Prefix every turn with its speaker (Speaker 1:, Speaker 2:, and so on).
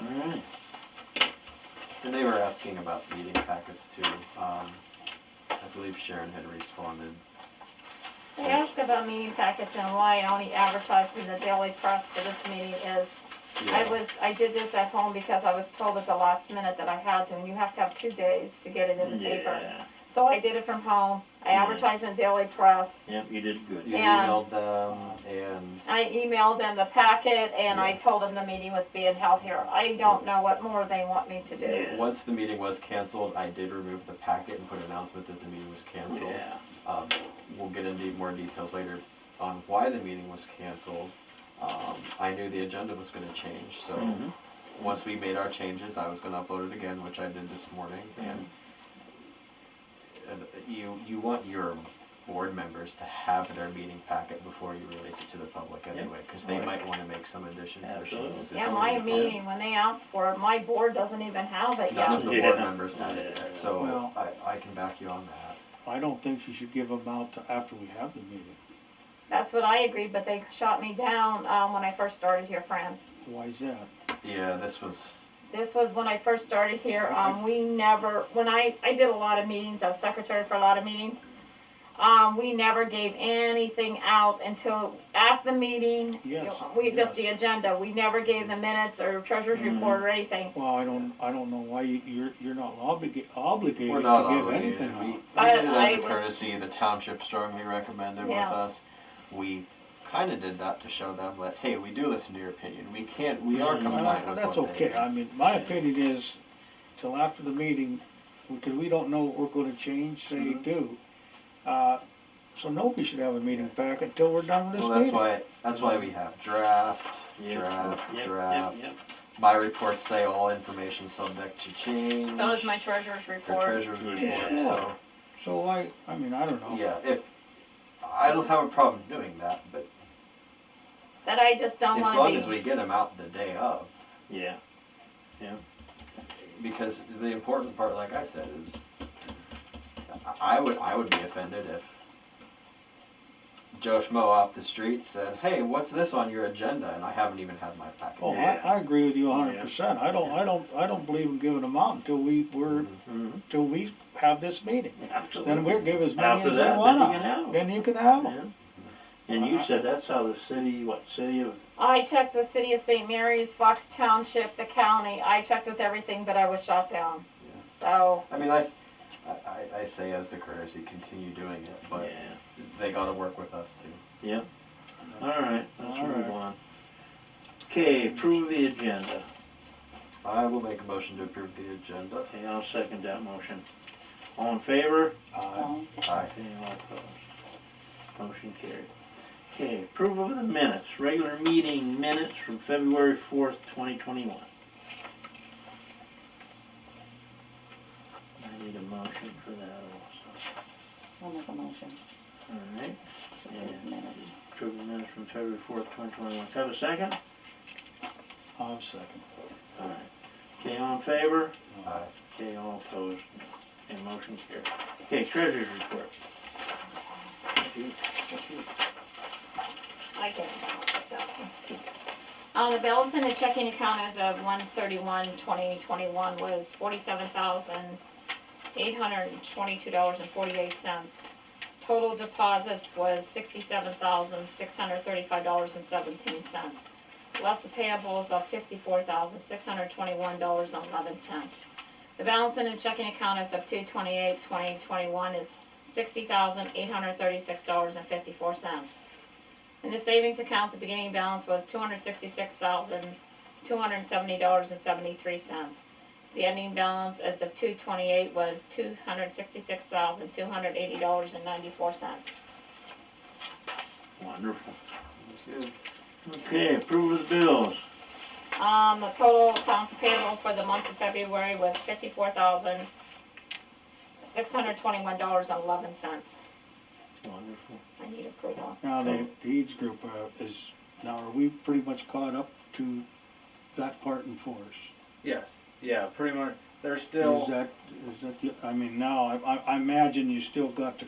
Speaker 1: Mm-hmm.
Speaker 2: office too. Um, I believe Sharon had responded.
Speaker 3: They ask about meeting packets and why I only advertised in the daily press for this meeting is, I
Speaker 2: Yeah.
Speaker 3: was, I did this at home because I was told at the last minute that I had to, and you have to have two days to get it in the paper.
Speaker 1: Yeah,
Speaker 3: So I did it from home, I
Speaker 1: Yeah.
Speaker 3: advertised in the daily press,
Speaker 1: yeah, you did good.
Speaker 2: You
Speaker 3: and-
Speaker 2: emailed them and,
Speaker 3: I emailed them the packet, and I told them the meeting was being held here. I don't know what more they want me to do.
Speaker 1: Yeah.
Speaker 2: once the meeting was canceled, I did remove the packet and put an announcement that the meeting was canceled.
Speaker 1: Yeah,
Speaker 2: Um, we'll get into more details later on why the meeting was canceled. Um, I knew the agenda was gonna change, so
Speaker 1: Mhm.
Speaker 2: once we made our changes, I was gonna upload it again, which I did this morning, and and you, you want your board members to have their meeting packet before you release it to the public
Speaker 1: Yep.
Speaker 2: anyway, cause they
Speaker 1: Right.
Speaker 2: might wanna make some additions or
Speaker 1: Absolutely.
Speaker 2: changes. It's
Speaker 3: Yeah,
Speaker 2: already
Speaker 3: my
Speaker 2: on.
Speaker 3: meeting, when they asked for it, my board doesn't even have it
Speaker 2: None of
Speaker 3: yet.
Speaker 2: the board
Speaker 1: Yeah.
Speaker 2: members had it, yet,
Speaker 1: Yeah.
Speaker 2: so
Speaker 4: Well-
Speaker 2: I, I can back you on that.
Speaker 4: I don't think you should give them out to after we have the meeting.
Speaker 3: That's what I agreed, but they shot me down, um, when I first started here, Fran.
Speaker 4: Why is that?
Speaker 2: Yeah, this was,
Speaker 3: This was when I first started here, um, we never, when I, I did a lot of meetings, I was secretary for a lot of meetings. Um, we never gave anything out until at the meeting.
Speaker 4: Yes,
Speaker 3: We, just the
Speaker 4: yes. Mm-hmm.
Speaker 3: agenda, we never gave the minutes or treasurer's
Speaker 1: Mhm.
Speaker 3: report or anything.
Speaker 4: Well, I don't, I don't know why you- you're, you're not obliga- obligated
Speaker 2: we're not
Speaker 4: to give
Speaker 2: obligated,
Speaker 4: anything
Speaker 2: we, we
Speaker 4: out.
Speaker 2: did it
Speaker 3: But
Speaker 2: as
Speaker 3: I
Speaker 2: a
Speaker 3: was-
Speaker 2: courtesy, the township strongly recommended with
Speaker 3: Yes.
Speaker 2: us. We kinda did that to show them that, hey, we do listen to your opinion, we can't, we are
Speaker 1: Mhm.
Speaker 4: Well,
Speaker 2: compliant with
Speaker 4: That's
Speaker 2: what they
Speaker 4: okay,
Speaker 2: do.
Speaker 4: I mean, my opinion is, till after the meeting, because we don't know what we're gonna change, say,
Speaker 2: Mm-hmm.
Speaker 1: Mhm.
Speaker 4: do. Uh, so nobody should have a meeting back until we're done with this
Speaker 2: Well,
Speaker 4: meeting.
Speaker 2: that's why, that's why we have draft,
Speaker 1: yeah.
Speaker 2: draft,
Speaker 1: Yep,
Speaker 2: draft.
Speaker 1: Yep,
Speaker 2: My reports say all information subject to change.
Speaker 3: So does my treasurer's
Speaker 2: Your
Speaker 3: report.
Speaker 2: treasurer's
Speaker 1: Yeah.
Speaker 2: report, so,
Speaker 4: So I, I mean, I don't know.
Speaker 2: yeah, if, I don't have a problem doing that, but
Speaker 3: That I just don't
Speaker 2: as
Speaker 3: wanna
Speaker 2: long
Speaker 3: be.
Speaker 2: as we get them out the day of.
Speaker 1: yep,
Speaker 2: because the important part, like I said, is I I would I would be offended if Joe Schmo off the street said, "Hey, what's this on your agenda?" and I haven't even had my packet.
Speaker 4: Oh, I,
Speaker 1: Yeah.
Speaker 4: I agree with you a
Speaker 1: Yeah.
Speaker 4: hundred percent, I don't, I don't, I don't believe in giving them out until we, we're,
Speaker 2: Mhm.
Speaker 1: yeah. Mhm.
Speaker 4: till we have this meeting.
Speaker 1: Absolutely.
Speaker 4: Then we'll give as many
Speaker 1: After
Speaker 4: as
Speaker 1: that,
Speaker 4: they
Speaker 1: then
Speaker 4: want
Speaker 1: you can have 'em.
Speaker 4: out, then you can have them.
Speaker 1: Yeah. And you said that's how the city, what, city of,
Speaker 3: I checked with City of St. Mary's, Fox Township, the county, I checked with everything, but I was shot down.
Speaker 2: Yeah.
Speaker 3: So,
Speaker 2: I mean, I, s- I- I- I say as the courtesy, continue doing it, but
Speaker 1: yeah,
Speaker 2: they got to work with us too.
Speaker 1: all right, let's
Speaker 4: All
Speaker 1: move
Speaker 4: right.
Speaker 1: on. Okay, approve the agenda.
Speaker 2: I will make a motion to approve the agenda.
Speaker 1: Okay, I'll second that motion. All in favor?
Speaker 4: Uh,
Speaker 2: Aye.
Speaker 1: Okay, all opposed. Motion carried. Okay, approval of the minutes, regular meeting minutes from February fourth, twenty twenty-one. I need a motion for that also.
Speaker 5: I'll make a motion
Speaker 1: All right,
Speaker 5: to approve the minutes.
Speaker 1: approve the minutes from February fourth, twenty twenty-one. Have a second?
Speaker 4: I'll second.
Speaker 1: All right. Okay, all in favor?
Speaker 2: Aye.
Speaker 1: Okay, all opposed? And motion carried. Okay, treasurer's report.
Speaker 3: I can. Um, the balance in the checking account as of one thirty-one, twenty twenty-one was forty-seven thousand, eight hundred and twenty-two dollars and forty-eight cents. Total deposits was sixty-seven thousand, six hundred thirty-five dollars and seventeen cents. Less the payables of fifty-four thousand, six hundred twenty-one dollars and eleven cents. The balance in the checking account as of two twenty-eight, twenty twenty-one is sixty thousand, eight hundred thirty-six dollars and fifty-four cents. In the savings account, the beginning balance was two hundred sixty-six thousand, two hundred seventy dollars and seventy-three cents. The ending balance as of two twenty-eight was two hundred sixty-six thousand, two hundred eighty dollars and ninety-four cents.
Speaker 1: Wonderful.
Speaker 2: That's good.
Speaker 1: Okay, approve of the bills.
Speaker 3: Um, the total accounts payable for the month of February was fifty-four thousand, six hundred twenty-one dollars and eleven cents.
Speaker 1: Wonderful.
Speaker 3: I need approval.
Speaker 4: Now, the deeds group uh, is, now are we pretty much caught up to that part in force?
Speaker 6: Yes, yeah, pretty much, they're
Speaker 4: Is
Speaker 6: still,
Speaker 4: that, is that, the- I mean, now, I, I- I imagine you still got the